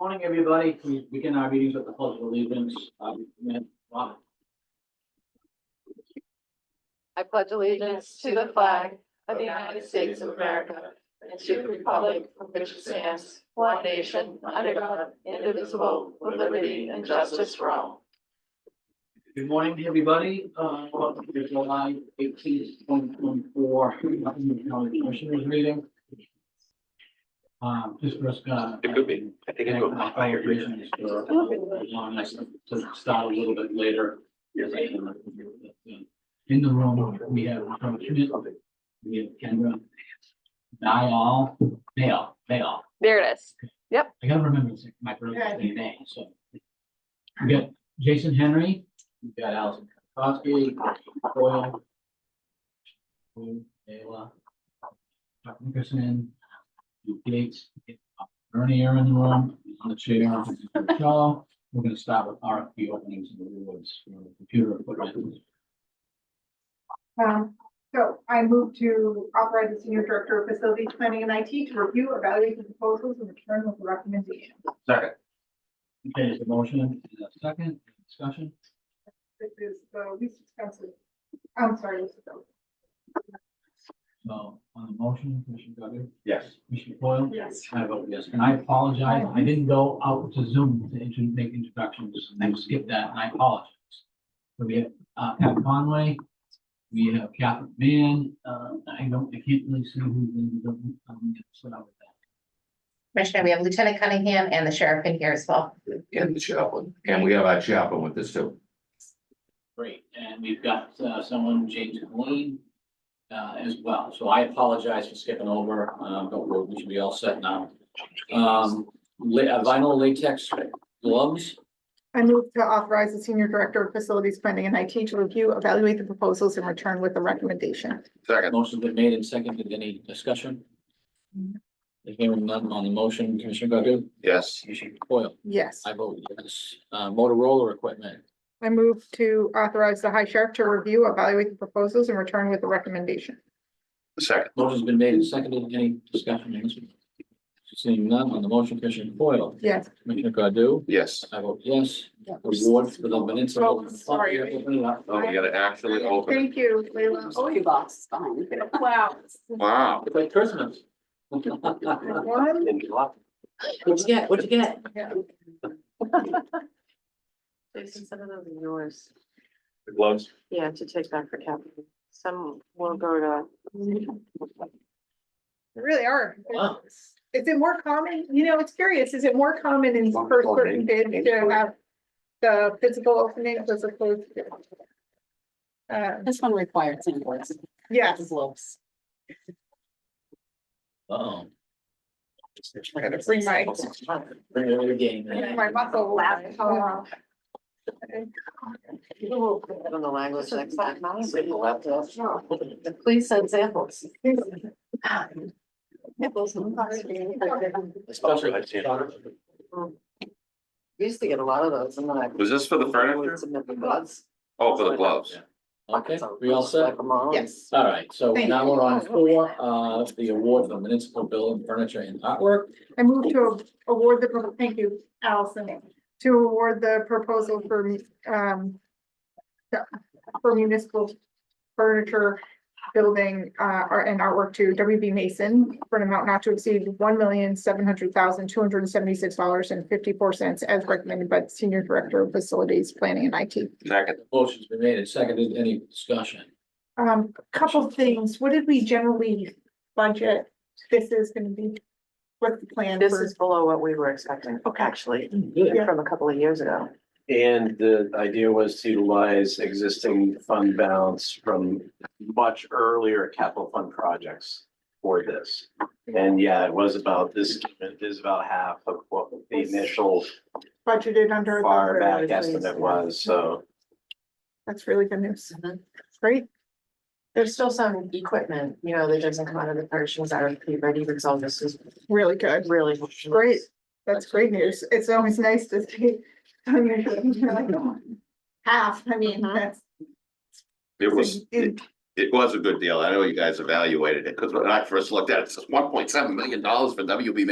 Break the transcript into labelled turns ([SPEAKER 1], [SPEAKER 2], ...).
[SPEAKER 1] Morning, everybody. Can we begin our meetings with the pledge of allegiance? Uh, Madam Robin.
[SPEAKER 2] I pledge allegiance to the flag of the United States of America and to the republic for which it stands, one nation, under God, indivisible, with liberty and justice for all.
[SPEAKER 1] Good morning, everybody. Uh, welcome to the July eighteenth, twenty twenty-four, commissioners meeting. Um, this was, uh.
[SPEAKER 3] It could be. I think it
[SPEAKER 1] And
[SPEAKER 3] will.
[SPEAKER 1] my fire commissioners for, uh, allowing us to start a little bit later. In the room, we have, we have Kendra. Niall, Nail, Nail.
[SPEAKER 2] There it is.
[SPEAKER 1] I gotta remember it's my brother's name, so. We got Jason Henry, we got Allison Kosky, Doyle. Boone, Ayla. Chuck Nickerson. Lou Gates. Ernie Aaron in the room, on the chair, Shaw. We're gonna start with RFP openings and awards for computer equipment.
[SPEAKER 4] Um, so I move to authorize the senior director of facilities planning and IT to review, evaluate the proposals and return with a recommendation.
[SPEAKER 1] Second. Okay, is the motion, and a second, discussion?
[SPEAKER 4] This is the least expensive. I'm sorry, this is the-
[SPEAKER 1] So on the motion, Commissioner Godu?
[SPEAKER 3] Yes.
[SPEAKER 1] Commissioner Foil?
[SPEAKER 4] Yes.
[SPEAKER 1] I vote yes, and I apologize, I didn't go out to Zoom to intro- make introductions, I skipped that, and I apologize. So we have, uh, Pat Conway, we have Catherine Mann, uh, I don't, I can't really see who's in the, um, so I would-
[SPEAKER 5] Commissioner, we have Lieutenant Cunningham and the sheriff in here as well.
[SPEAKER 3] And the chaplain, and we have our chaplain with us too.
[SPEAKER 1] Great, and we've got, uh, someone, James Colleen, uh, as well, so I apologize for skipping over, um, but we're- we should be all set now. Um, la- uh, vinyl latex gloves,
[SPEAKER 4] I move to authorize the senior director of facilities planning and IT to review, evaluate the proposals and return with a recommendation.
[SPEAKER 3] Second.
[SPEAKER 1] Motion's been made and seconded. Any discussion? Hearing none on the motion, Commissioner Godu?
[SPEAKER 3] Yes.
[SPEAKER 1] Commissioner Coyle?
[SPEAKER 4] Yes.
[SPEAKER 1] I vote yes. Uh, Motorola equipment.
[SPEAKER 4] I move to authorize the high sheriff to review, evaluate the proposals and return with a recommendation.
[SPEAKER 3] Second.
[SPEAKER 1] Motion's been made and seconded. Any discussion? on this one? Seeing none on the motion, Commissioner Coyle?
[SPEAKER 4] Yes.
[SPEAKER 1] Commissioner Godu?
[SPEAKER 3] Yes.
[SPEAKER 1] I vote yes. Award for the Peninsula.
[SPEAKER 4] Oh, sorry.
[SPEAKER 1] Open it up.
[SPEAKER 3] Oh, we gotta actually open. it.
[SPEAKER 4] Thank you, Leila.
[SPEAKER 6] Oh, you box is fine.
[SPEAKER 4] Wow.
[SPEAKER 3] Wow.
[SPEAKER 1] It's like Christmas. Um,
[SPEAKER 4] One.
[SPEAKER 1] What'd you get? What'd you get?
[SPEAKER 2] Jason, some of those are yours.
[SPEAKER 3] The gloves.
[SPEAKER 2] Yeah, to take back for capital. Some will go to.
[SPEAKER 4] They really are.
[SPEAKER 1] Wow.
[SPEAKER 4] Is it more common, you know, it's curious, is it more common in first certain bids to have the physical openings as opposed to? Uh,
[SPEAKER 6] This one requires invoice.
[SPEAKER 4] yes,
[SPEAKER 6] Looks.
[SPEAKER 1] Uh-oh.
[SPEAKER 4] Gotta bring my-
[SPEAKER 1] Bring it to the game. man.
[SPEAKER 4] my muscle laughed. Oh,
[SPEAKER 2] People will put on the language next time. Please send samples. Samples.
[SPEAKER 1] Especially.
[SPEAKER 2] We Used to get a lot of those and then I.
[SPEAKER 3] Was this for the furniture?
[SPEAKER 2] Submit the buds.
[SPEAKER 3] Oh, for the gloves.
[SPEAKER 1] Okay, we all set?
[SPEAKER 4] Yes.
[SPEAKER 1] All right, so
[SPEAKER 4] Thank
[SPEAKER 1] now
[SPEAKER 4] you. Oh,
[SPEAKER 1] we're on four, uh, the award for municipal building furniture and artwork.
[SPEAKER 4] I move to award the, pro- thank you, Allison, to award the proposal for, um, for municipal furniture building, uh, art and artwork to WB Mason for an amount not to exceed one million, seven hundred thousand, two hundred and seventy-six dollars and fifty-four cents as recommended by the Senior Director of Facilities Planning and IT.
[SPEAKER 3] Second.
[SPEAKER 1] Motion's been made and seconded. Any discussion?
[SPEAKER 4] Um, couple things. What did we generally budget? This is gonna be, what's the plan?
[SPEAKER 2] This
[SPEAKER 4] for-
[SPEAKER 2] is below what we were expecting, actually,
[SPEAKER 1] Good.
[SPEAKER 2] from a couple of years ago.
[SPEAKER 7] And the idea was to utilize existing fund balance from much earlier capital fund projects for this. And yeah, it was about this, it is about half of what the initial
[SPEAKER 4] Budgeted under. the-
[SPEAKER 7] far back estimate was, so.
[SPEAKER 4] That's really good news. Great.
[SPEAKER 2] There's still some equipment, you know, that doesn't come out of the purchase RFP ready because all this is
[SPEAKER 4] Really good.
[SPEAKER 2] really.
[SPEAKER 4] Great. That's great news. It's always nice to see. when you're doing, you're like, oh, Half, I mean,
[SPEAKER 2] Mhm.
[SPEAKER 4] that's.
[SPEAKER 3] It was, it,
[SPEAKER 4] it-
[SPEAKER 3] it was a good deal. I know you guys evaluated it, because when I first looked at it, it's one point seven million dollars for WB